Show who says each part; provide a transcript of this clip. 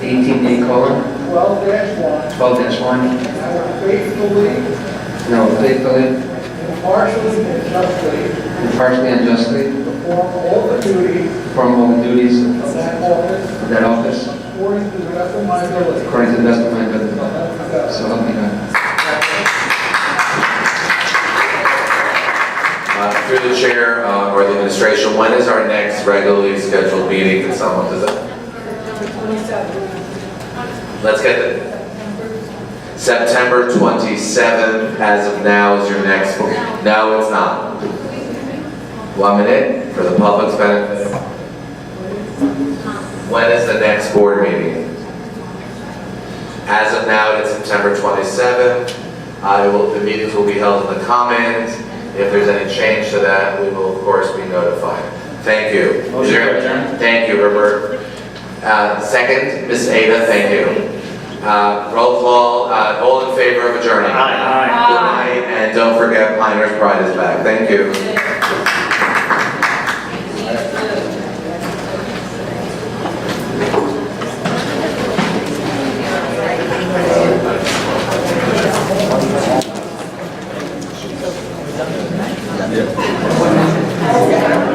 Speaker 1: Mueller,
Speaker 2: twelve dash
Speaker 1: twelve one.
Speaker 2: one, I will faithfully,
Speaker 1: No, faithfully,
Speaker 2: impartially, and justly
Speaker 1: impartially, and justly
Speaker 2: perform all the duties
Speaker 1: perform all the duties
Speaker 2: of that office
Speaker 1: of that office
Speaker 2: according to the best of my ability.
Speaker 1: according to the best of my ability.
Speaker 2: So help me
Speaker 1: So help me
Speaker 2: God.
Speaker 1: God.
Speaker 3: Uh, Through the chair uh, or the administration, when is our next regularly scheduled meeting? Can someone, does it? Let's get it. September 27th, as of now, is your next, no, it's not. One minute for the public's benefit. When is the next board meeting? As of now, it's September 27th. I will, the meetings will be held in the commons. If there's any change to that, we will, of course, be notified. Thank you. Is
Speaker 4: Motion to
Speaker 3: there-
Speaker 4: adjourn.
Speaker 3: Thank you, Herbert. Uh, Second, Ms. Ada, thank you. Uh, Roll call, uh, all in favor of adjourning?
Speaker 4: Aye.
Speaker 3: Good night, and don't forget Miners Pride is back. Thank you.